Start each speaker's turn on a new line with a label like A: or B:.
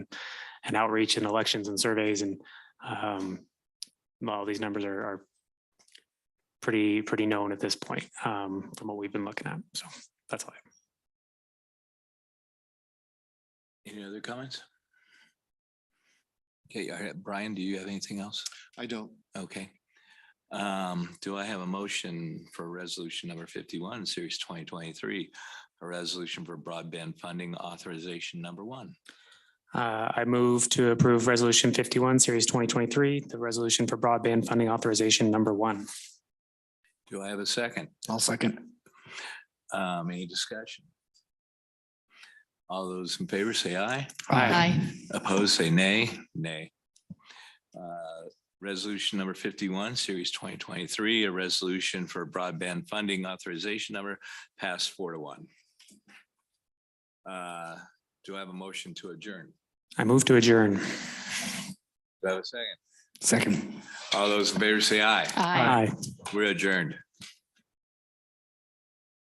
A: and outreach and elections and surveys and um, all these numbers are, are pretty, pretty known at this point um, from what we've been looking at. So that's all. I have.
B: Any other comments? Okay, all right, Brian, do you have anything else?
C: I don't.
B: Okay. Um, do I have a motion for resolution number fifty-one, series twenty twenty-three? A resolution for broadband funding authorization number one.
A: Uh, I move to approve Resolution 51, Series 2023, the resolution for broadband funding authorization number one.
B: Do I have a second?
C: I'll second.
B: Um, any discussion? All those in favor say aye.
D: Aye.
B: Opposed, say nay. Nay. Uh, Resolution number fifty-one, series twenty twenty-three, a resolution for broadband funding authorization number passed four to one. Uh, Do I have a motion to adjourn?
A: I move to adjourn.
B: Do I have a second?
C: Second.
B: All those in favor say aye.
D: Aye.
B: We're adjourned.